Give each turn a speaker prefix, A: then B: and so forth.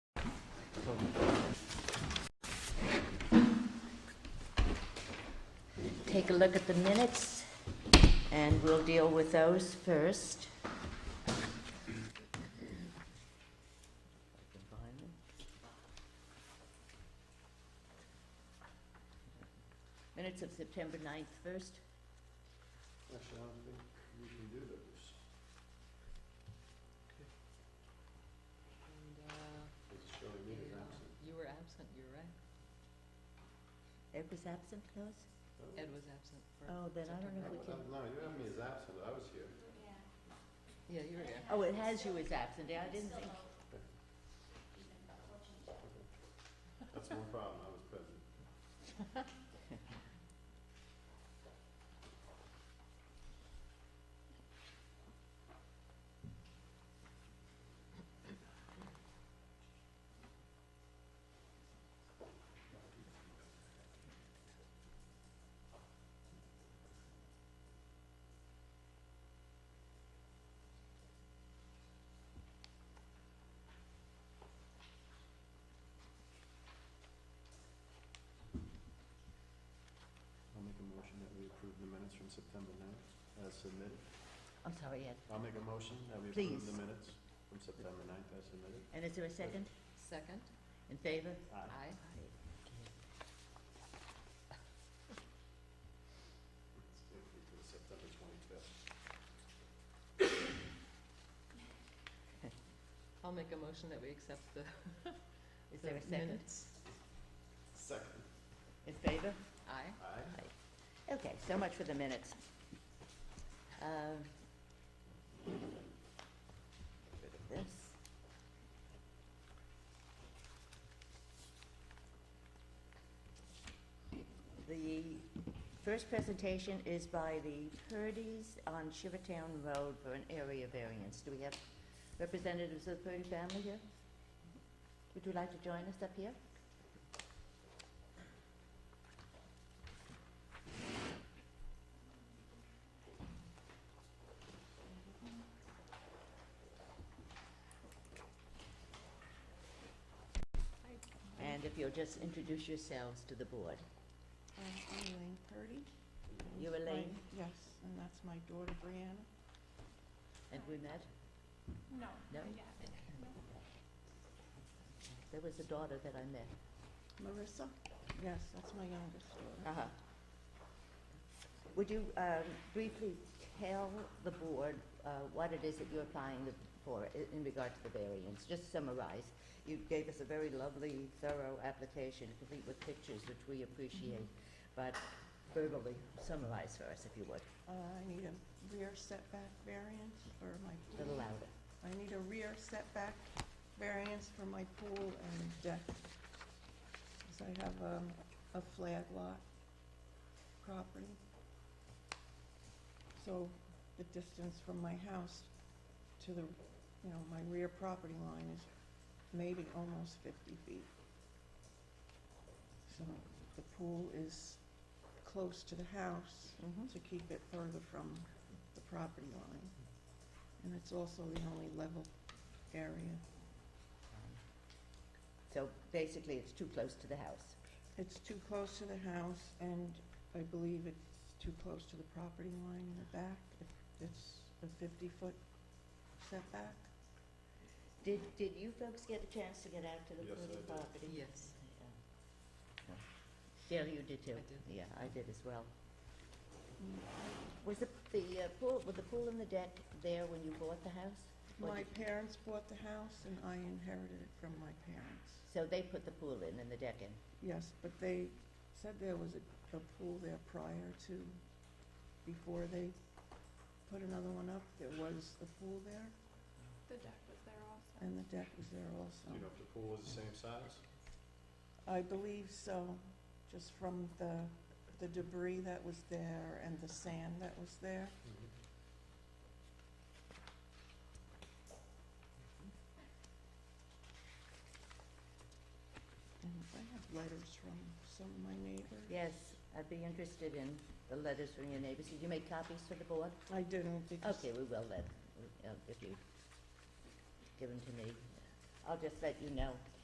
A: Take a look at the minutes, and we'll deal with those first. Minutes of September 9th first.
B: Actually, I don't think we can do those.
C: And, uh,
B: It's showing me as absent.
C: you were absent, you're right.
A: Ed was absent, Lois?
C: Ed was absent for.
A: Oh, then I don't know if we can,
B: Uh, No, you have me as absent, I was here.
C: Yeah, you were here.
A: oh, it has you as absent, Yeah, I didn't think.
B: That's no problem, I was present. I'll make a motion that we approve the minutes from September 9th as submitted.
A: I'm sorry, Ed.
B: I'll make a motion that we
A: Please.
B: approve the minutes from September 9th as submitted.
A: And is there a second?
C: Second,
A: In favor?
B: Aye.
C: aye.
B: Let's do it for September 25th.
C: I'll make a motion that we accept the
A: Is there
C: the
A: a second?
C: minutes.
B: Second.
A: In favor?
C: Aye.
B: Aye.
A: Okay, so much for the minutes. Um, Get rid of this. The first presentation is by the Purdy's on Shivertown Road for an area variance. Do we have representatives of the Purdy family here? Would you like to join us up here? And if you'll just introduce yourselves to the board.
D: I'm Elaine Purdy. and
A: You,
D: my-
A: Elaine?
D: Yes, and that's my daughter Brianna.
A: Have we met?
E: No.
A: No? There was a daughter that I met.
D: Marissa? Yes, that's my youngest daughter.
A: Uh-huh. Would you um, briefly tell the board uh, what it is that you're applying the- for i- in regard to the variance? Just summarize. You gave us a very lovely, thorough application, complete with pictures, which we appreciate, but verbally summarize for us, if you would,
D: Uh, I need a rear setback variance for my
A: a little
D: pool.
A: louder.
D: I need a rear setback variance for my pool and deck. Because I have um, a flag lot property. So the distance from my house to the, you know, my rear property line is maybe almost 50 feet. So the pool is close to the house
A: Mhm.
D: to keep it further from the property line. And it's also the only level area.
A: So basically, it's too close to the house.
D: It's too close to the house, and I believe it's too close to the property line in the back. If It's a 50-foot setback.
A: Did, did you folks get a chance to get out to the
B: Yes, I
A: Purdy
B: did.
A: property?
C: Yes,
A: Gail, you did too?
C: I did.
A: Yeah, I did as well. Was the, the uh, pool, was the pool and the deck there when you bought the house? Or
D: My
A: did-
D: parents bought the house, and I inherited it from my parents.
A: So they put the pool in and the deck in?
D: Yes, but they said there was a, a pool there prior to, before they put another one up, there was a pool there,
E: The deck was there also.
D: and the deck was there
B: Do
D: also.
B: you know if the pool was the same size?
D: I believe so, just from the, the debris that was there and the sand that was there.
B: Mm-hmm.
D: And I have letters from some of my neighbors.
A: Yes, I'd be interested in the letters from your neighbors. Did you make copies for the board?
D: I didn't because
A: Okay, we will then, uh, if you give them to me. I'll just let you know.